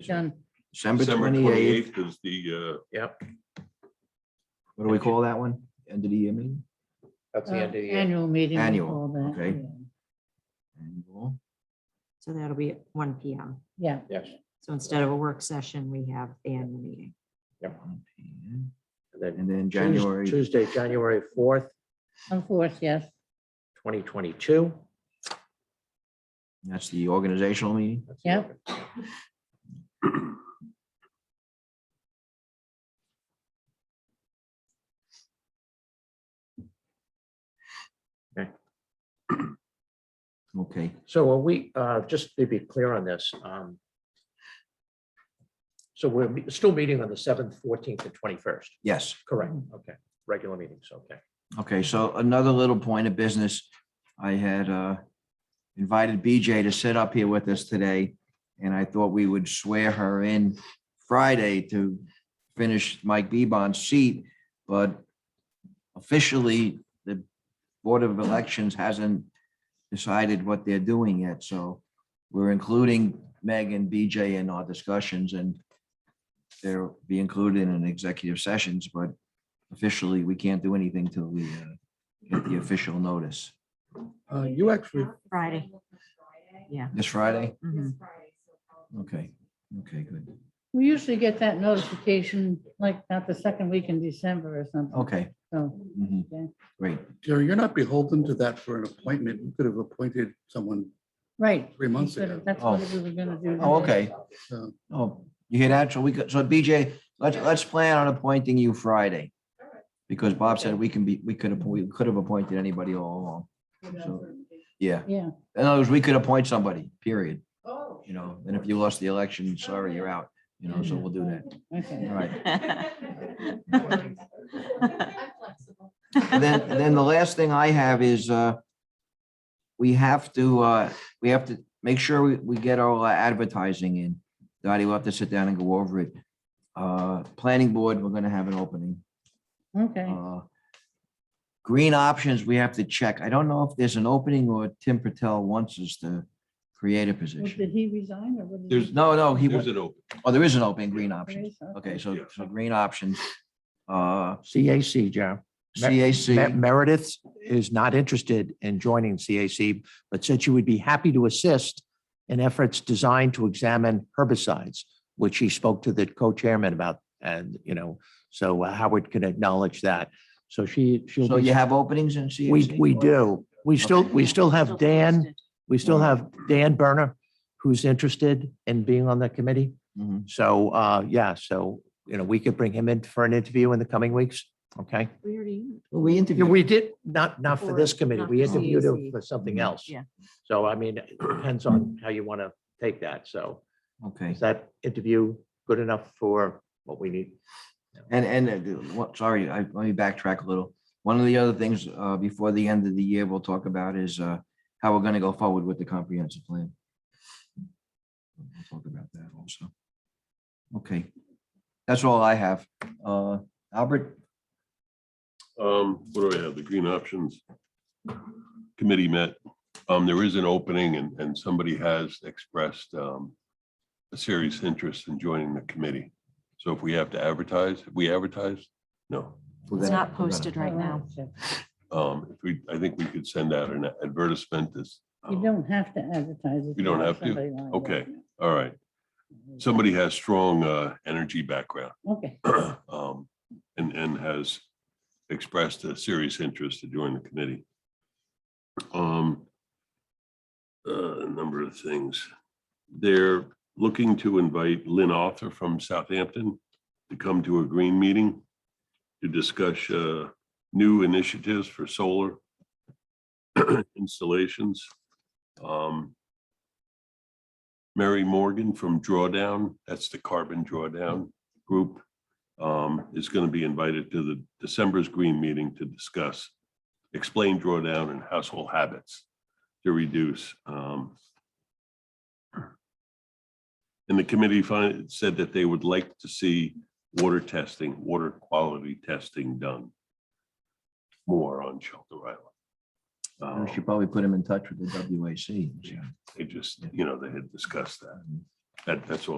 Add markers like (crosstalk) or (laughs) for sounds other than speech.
John, December December twenty-eighth, twenty-eighth is uh, the, what do we call that one? End of the year meeting? That's uh, the end of the year. annual meeting. we Annual, call that, okay. yeah. Annual. So that'll be at one P M. Yeah, Yes. So instead of a work session, we have the annual meeting. And then And then Tues- January, Tuesday, January fourth, of course, yes. twenty twenty-two. that's the organizational meeting. Yeah. Okay, So are we, uh, just to be clear on this, um, so we're me- still meeting on the seventh, fourteenth, and twenty-first, yes. correct? Okay, regular meetings, okay. Okay, so another little point of business. I had uh, invited BJ to sit up here with us today, and I thought we would swear her in Friday to finish Mike Bebon's seat, but officially, the Board of Elections hasn't decided what they're doing yet, so we're including Meg and BJ in our discussions, and they'll be included in executive sessions, but officially, we can't do anything till we uh, get the official notice. Uh, you actually, Friday. Yeah. This Friday? Mhm. Okay, okay, good. We usually get that notification like about the second week in December or something. Okay, So, mhm, Okay. great. Jerry, you're not beholden to that for an appointment. You could have appointed someone. right. Three months That's what- ago. That's what we were gonna do. Oh, okay. So Oh, you hear that? So we could, so BJ, let's, let's plan on appointing you Friday. Because Bob said we can be, we could, appoint- we could have appointed anybody all along. So, yeah. Yeah. In other words, we could appoint somebody, period. Oh. You (laughs) know, and if you lost the election, sorry, you're out, you know, so we'll do that. Okay. All right. (laughs) I'm flexible. And then, and then the last thing I have is, uh, we have to, uh, we have to make sure we, we get our advertising in. Dottie, we'll have to sit down and go over it. Uh, planning board, we're gonna have an opening. Okay. Uh, Green options, we have to check. I don't know if there's an opening or Tim Patel wants us to create a Well, position. Did he resign or what? did he There's- do? No, no, uh, he, there's wa- an open. oh, there is an open, green options. Yes, okay. Okay, so, Yeah. so green options, uh, CAC, John. CAC, Meredith is not interested in joining CAC, but said she would be happy to assist in efforts designed to examine herbicides, which she spoke to the co-chairman about. And, you know, so uh, Howard can acknowledge that. So she, she'll. so be- you have openings in CAC? We, we do. We still, Okay. we still have Dan, we still Wow. have Dan Berner, who's interested in being on the committee. Mhm. So, uh, yeah, so, you know, we could bring him in for an interview in the coming weeks. Okay. We already. Well, we Yeah, interviewed. We did, not, not for this Or committee. not We for interviewed him CAC. for something else. Mm-hmm. Yeah. So I mean, it depends on how you want to take that. So Okay, is that interview good enough for what we need? and, and, uh, what- sorry, I, let me backtrack a little. One of the other things, uh, before the end of the year, we'll talk about is, uh, how we're gonna go forward with the comprehensive plan. We'll Talk about that also. Okay, that's all I have. Uh, Albert, Um, what do I have? The Green Options Committee met. Um, there is an opening and, and somebody has expressed, um, a serious interest in joining the committee. So if we have to advertise, if we advertise, no. we're gonna- It's not we're gonna- posted right now. Oh, Um, if we, I think we could send out an advertisement um, this. You don't have to advertise. it. You don't have to? Somebody lined up. Okay. All right. Somebody has strong, uh, energy background. Okay. um, and, and has expressed a serious interest to join the committee. Um, uh, A number of things. They're looking to invite Lynn Arthur from Southampton to come to a green meeting to discuss uh, new initiatives for solar (clears throat) installations. Um, Mary Morgan from Drawdown, that's the Carbon Drawdown Group, um, is going to be invited to the December's green meeting to discuss, explain drawdown and household habits to reduce. um, And the committee fin- said that they would like to see water testing, water quality testing done more on Shelter Island. We Um, should probably put him in touch with the WAC. Um, They just, you know, they had discussed that. That, that's all